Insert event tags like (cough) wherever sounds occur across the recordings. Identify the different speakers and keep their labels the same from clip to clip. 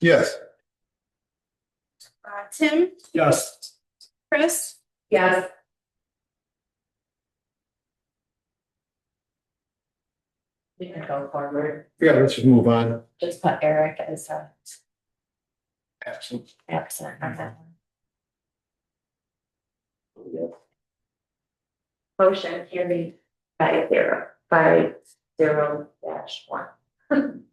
Speaker 1: Yes.
Speaker 2: Uh, Tim,
Speaker 1: Yes.
Speaker 2: Chris,
Speaker 3: Yes. We can go forward,
Speaker 1: Yeah, let's just move on.
Speaker 3: just put Eric as uh, a
Speaker 1: Absolutely.
Speaker 3: absent on that one. Motion carried by zero, by zero dash one. (laughs)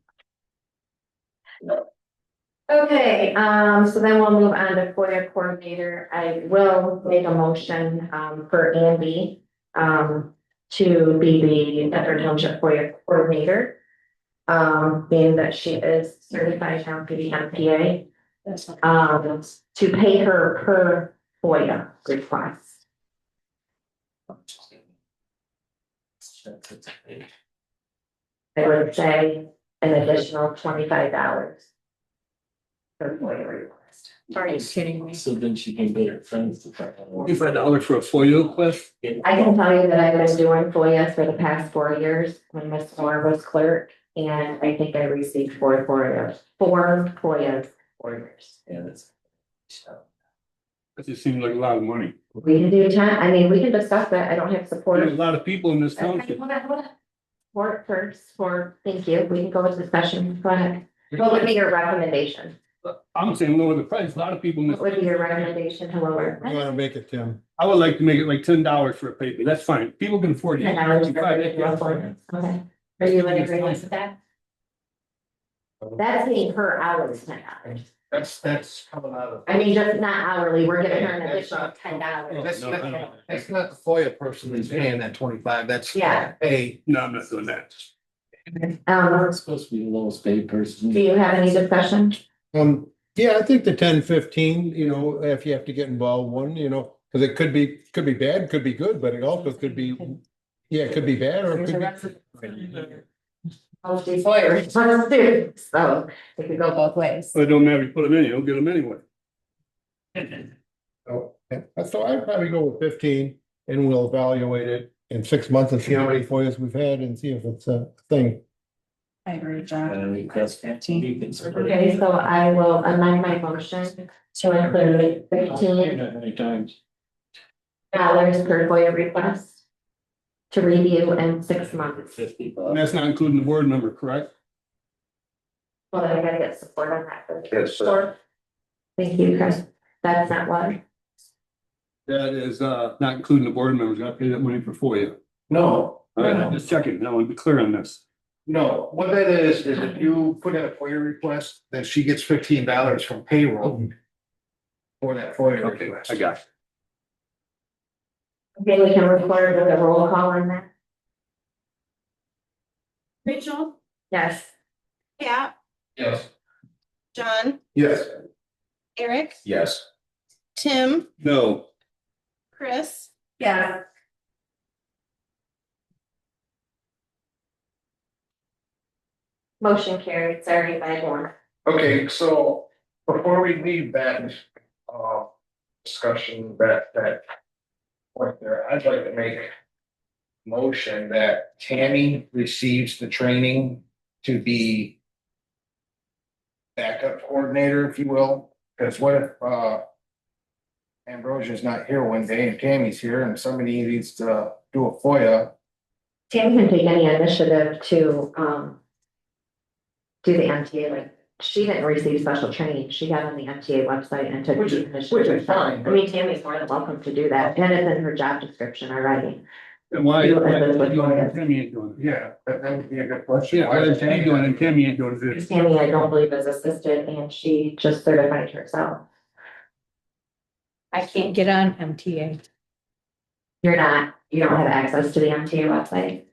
Speaker 3: Okay, um, so then we'll move on to FOIA coordinator. I will make a motion, um, for Andy, um, to be the Dufferin Township FOIA coordinator. Um, being that she is certified town PDMPA. Um, to pay her per FOIA request. I would say an additional twenty-five dollars. Per FOIA request.
Speaker 2: are you kidding me?
Speaker 4: So then she can get her friends to try. to-
Speaker 5: Twenty-five dollars for a FOIA request?
Speaker 3: I can tell you that I've been doing FOIAs for the past four years when Ms. Moore was clerk, and I think I received four FOIAs, four FOIAs, four years.
Speaker 4: Yeah, that's.
Speaker 5: That just seems like a lot of money.
Speaker 3: We can do ten, I mean, we can discuss that, I don't have
Speaker 5: There's a
Speaker 3: support.
Speaker 5: lot of people in this
Speaker 3: Okay,
Speaker 5: township.
Speaker 3: hold on, hold on. Support first, for, thank you, we can go into discussion, go ahead. What would be your recommendation?
Speaker 5: I'm saying lower the price. A lot of people in this.
Speaker 3: What would be your recommendation to lower?
Speaker 1: You wanna make it, Tim?
Speaker 5: I would like to make it like ten dollars for a paper. That's fine. People can afford it.
Speaker 3: Ten dollars per
Speaker 5: Five, yeah,
Speaker 3: individual
Speaker 5: that's fine.
Speaker 3: appointment. Okay, are you in agreement with that? That's paying her hourly ten dollars.
Speaker 4: Oh. That's, that's coming out of.
Speaker 3: I mean, just not hourly, we're giving her an
Speaker 4: Yeah, that's
Speaker 3: additional
Speaker 4: not-
Speaker 3: ten
Speaker 5: Oh,
Speaker 3: dollars.
Speaker 4: That's-
Speaker 5: no, I don't-
Speaker 4: that's
Speaker 1: not the FOIA person that's paying that twenty-five, that's.
Speaker 3: Yeah.
Speaker 1: Hey.
Speaker 5: No, I'm not doing that.
Speaker 3: Um,
Speaker 4: It's supposed to be the lowest paid person.
Speaker 3: do you have any discussion?
Speaker 1: Um, yeah, I think the ten fifteen, you know, if you have to get involved, one, you know, cause it could be, could be bad, could be good, but it also could be. Yeah, it could be bad or it could be.
Speaker 3: Mostly lawyers, let's do, so it could go both ways.
Speaker 5: Well, it don't matter. if You put them in, you don't get them anyway.
Speaker 1: Oh, yeah. So I'd probably go with fifteen and we'll evaluate it in six months and see how many FOIAs we've had and see if it's a thing.
Speaker 2: I agree, John.
Speaker 4: And we cross
Speaker 2: Fifteen.
Speaker 4: You can sort of-
Speaker 3: Okay, so I will amend my motion to include fifteen
Speaker 4: How many times?
Speaker 3: dollars per FOIA request to review in six months.
Speaker 4: Fifty
Speaker 5: And
Speaker 4: bucks.
Speaker 5: that's not including the board member, correct?
Speaker 3: Well, then I gotta get support on that. first. Sure. Thank you, Chris. That's not what,
Speaker 5: That is, uh, not including the board members. Got to pay that money for FOIA.
Speaker 6: No,
Speaker 5: All right, I'm just checking. I want to be clear on this.
Speaker 6: no, what that is, is if you put in a FOIA request, then she gets fifteen dollars from payroll. For that FOIA
Speaker 5: Mm-hmm. Okay,
Speaker 6: request.
Speaker 5: I got
Speaker 3: then we can record with a roll call on that.
Speaker 2: Rachel,
Speaker 3: Yes.
Speaker 2: Pat,
Speaker 6: Yes.
Speaker 2: John,
Speaker 6: Yes.
Speaker 2: Eric,
Speaker 6: Yes.
Speaker 2: Tim,
Speaker 5: you. No.
Speaker 2: Chris,
Speaker 3: Yeah. Motion carried, sorry, by one.
Speaker 6: Okay, so before we leave that, uh, discussion, that, that. Point there, I'd like to make. a Motion that Tammy receives the training to be. Backup coordinator, if you will, because what if, uh. Ambrosia's not here one day and Tammy's here and somebody needs to do a FOIA,
Speaker 3: Tammy can take any initiative to, um. Do the MTA, like, she didn't receive special training, she got on the MTA website and took.
Speaker 6: Which
Speaker 3: the
Speaker 6: is- which
Speaker 3: initiative.
Speaker 6: is fine.
Speaker 3: I mean, Tammy's more than welcome to do that, and it's in her job description already.
Speaker 5: And why?
Speaker 3: You and then what you
Speaker 5: why-
Speaker 3: have.
Speaker 5: Tammy ain't doing it.
Speaker 6: yeah, that, that would be a good question.
Speaker 5: Yeah, why is she doing it? and Tammy ain't doing it.
Speaker 3: Tammy, I don't believe is assisted, and she just certified herself.
Speaker 7: I can't get on MTA.
Speaker 3: You're not, you don't have access to the MTA website.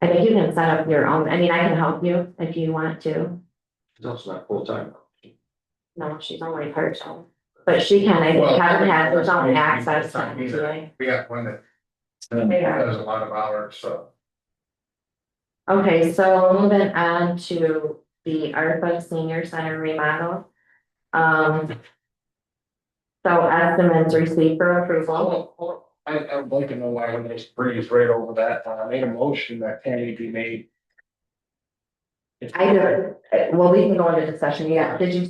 Speaker 3: I think you can set up your own, I mean, I can help you if you want to.
Speaker 6: That's not full time.
Speaker 3: No, she's only part-time, but she can, I think,
Speaker 6: Well,
Speaker 3: hasn't had her own
Speaker 6: maybe
Speaker 3: access to
Speaker 6: full-time either.
Speaker 3: MTA.
Speaker 6: We have one that
Speaker 3: They are.
Speaker 6: does a lot of hours, so.
Speaker 3: Okay, so moving on to the ARPA Senior Center remodel. Um. So estimates received for approval.
Speaker 6: Well, well, I, I would like to know why I'm just breeze right over that. Uh, I made a motion that Tammy be made.
Speaker 3: I, did- well, we can go into discussion, yeah, did you